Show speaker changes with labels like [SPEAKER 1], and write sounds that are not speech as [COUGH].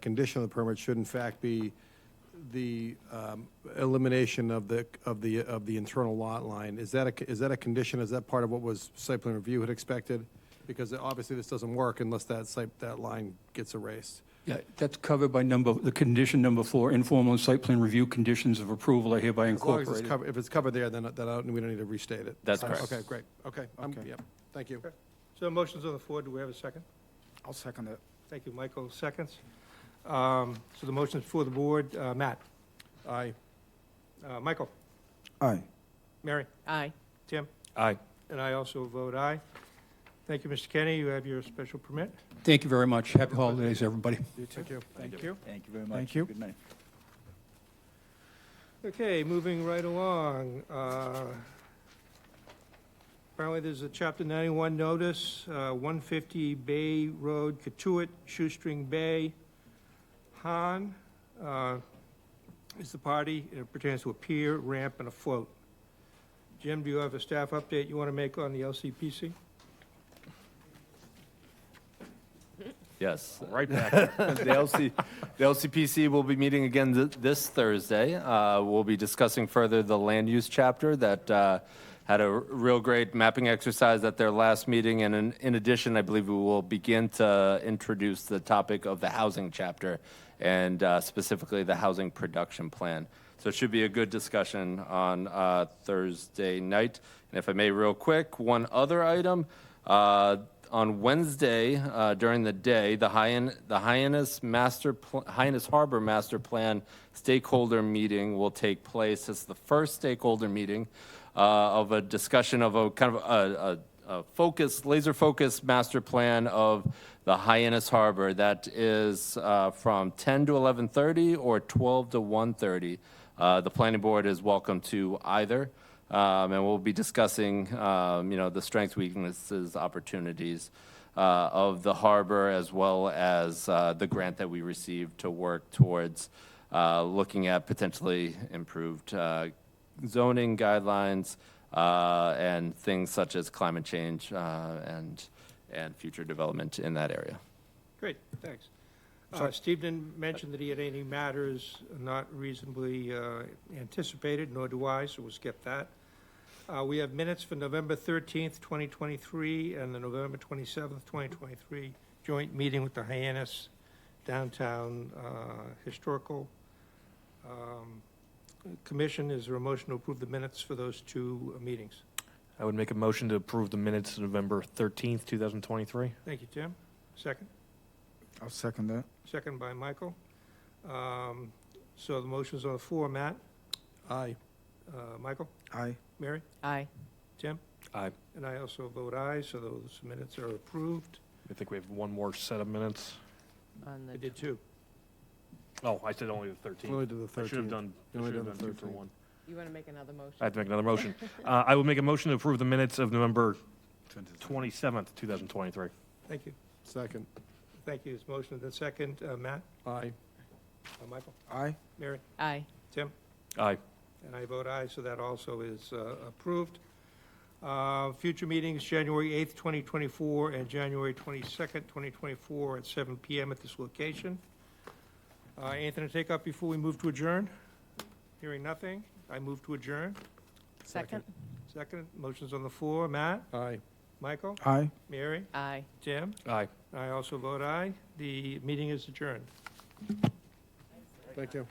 [SPEAKER 1] Condition of the permit should in fact be the um, elimination of the, of the, of the internal lot line. Is that a, is that a condition? Is that part of what was site plan review had expected? Because obviously this doesn't work unless that site, that line gets erased.
[SPEAKER 2] Yeah, that's covered by number, the condition number four, informal site plan review conditions of approval are hereby
[SPEAKER 1] As long as it's
[SPEAKER 2] incorporated.
[SPEAKER 1] covered, if it's covered there, then, then I don't- we don't need to restate it.
[SPEAKER 3] That's correct.
[SPEAKER 1] Okay, great. Okay, I'm, yep, thank you.
[SPEAKER 4] So the motion's on the floor, do we have a second?
[SPEAKER 5] I'll second it.
[SPEAKER 4] Thank you, Michael, seconds. Um, So the motion's for the board, Uh, Matt,
[SPEAKER 1] Aye.
[SPEAKER 4] uh, Michael,
[SPEAKER 5] Aye.
[SPEAKER 4] Mary,
[SPEAKER 6] Aye.
[SPEAKER 4] Tim,
[SPEAKER 3] Aye.
[SPEAKER 4] and I also vote aye. Thank you, Mr. Kenny, you have your special permit.
[SPEAKER 2] Thank you very much. Happy holidays, everybody.
[SPEAKER 1] Thank you.
[SPEAKER 4] Thank you.
[SPEAKER 7] Thank you very much.
[SPEAKER 5] Thank you.
[SPEAKER 7] Good night.
[SPEAKER 4] Okay, moving right along. uh, Apparently, there's a Chapter 91 notice, uh, 150 Bay Road, Katuitt, Shoestring Bay. Han uh, is the party. It pertains to a pier, ramp, and a float. Jim, do you have a staff update you want to make on the LCPC?
[SPEAKER 3] Yes. Right back. [LAUGHS] The LC, the LCPC will be meeting again th- this Thursday. Uh, We'll be discussing further the land use chapter that uh, had a r- real great mapping exercise at their last meeting. And in- in addition, I believe we will begin to introduce the topic of the housing chapter and uh, specifically the housing production plan. So it should be a good discussion on uh, Thursday night. And if I may, real quick, one other item. Uh, on Wednesday uh, during the day, the Hyannis, the Hyannis Master Pl- Hyannis Harbor Master Plan stakeholder meeting will take place. It's the first stakeholder meeting uh, of a discussion of a kind of a, a, a focus, laser focused master plan of the Hyannis Harbor. That is uh, from 10 to 11:30 or 12 to 1:30. Uh, the planning board is welcome to either. Um, and we'll be discussing, um, you know, the strengths, weaknesses, opportunities uh, of the harbor, as well as uh, the grant that we received to work towards uh, looking at potentially improved uh, zoning guidelines uh, and things such as climate change uh, and and future development in that area.
[SPEAKER 4] Great, thanks. Uh, Steve didn't mention that he had any matters not reasonably uh, anticipated, nor do I, so we'll skip that. Uh, We have minutes for November 13th, 2023, and the November 27th, 2023 joint meeting with the Hyannis Downtown uh, Historical um, Commission. Is there a motion to approve the minutes for those two uh, meetings?
[SPEAKER 8] I would make a motion to approve the minutes of November 13th, 2023.
[SPEAKER 4] Thank you, Tim. Second?
[SPEAKER 5] I'll second that.
[SPEAKER 4] Second by Michael. Um, So the motion's on the floor. Matt,
[SPEAKER 1] Aye.
[SPEAKER 4] uh, Michael,
[SPEAKER 5] Aye.
[SPEAKER 4] Mary,
[SPEAKER 6] Aye.
[SPEAKER 4] Tim?
[SPEAKER 8] Aye.
[SPEAKER 4] And I also vote aye, so those minutes are approved.
[SPEAKER 8] I think we have one more set of minutes.
[SPEAKER 6] On
[SPEAKER 4] I
[SPEAKER 6] the,
[SPEAKER 4] did too.
[SPEAKER 8] Oh, I said only the 13th.
[SPEAKER 1] Only to the 13th.
[SPEAKER 8] I should have done, I
[SPEAKER 1] You only
[SPEAKER 8] should have
[SPEAKER 1] done
[SPEAKER 8] done
[SPEAKER 1] the
[SPEAKER 8] two for
[SPEAKER 1] 13th.
[SPEAKER 8] one.
[SPEAKER 6] you want to make another motion?
[SPEAKER 8] I have to make another motion. Uh, I would make a motion to approve the minutes of November 27th, 2023.
[SPEAKER 4] Thank you.
[SPEAKER 1] Second.
[SPEAKER 4] Thank you. It's motion and the second. Uh, Matt,
[SPEAKER 1] Aye.
[SPEAKER 4] Uh, Michael,
[SPEAKER 5] Aye.
[SPEAKER 4] Mary,
[SPEAKER 6] Aye.
[SPEAKER 4] Tim?
[SPEAKER 8] Aye.
[SPEAKER 4] And I vote aye, so that also is uh, approved. Uh, Future meetings, January 8th, 2024, and January 22nd, 2024, at 7 PM at this location. Uh, Anything to take up before we move to adjourn? Hearing nothing, I move to adjourn.
[SPEAKER 6] Second?
[SPEAKER 4] Second, motion's on the floor. Matt,
[SPEAKER 1] Aye.
[SPEAKER 4] Michael,
[SPEAKER 5] Aye.
[SPEAKER 4] Mary,
[SPEAKER 6] Aye.
[SPEAKER 4] Jim?
[SPEAKER 8] Aye.
[SPEAKER 4] I also vote aye. The meeting is adjourned.
[SPEAKER 1] Thank you.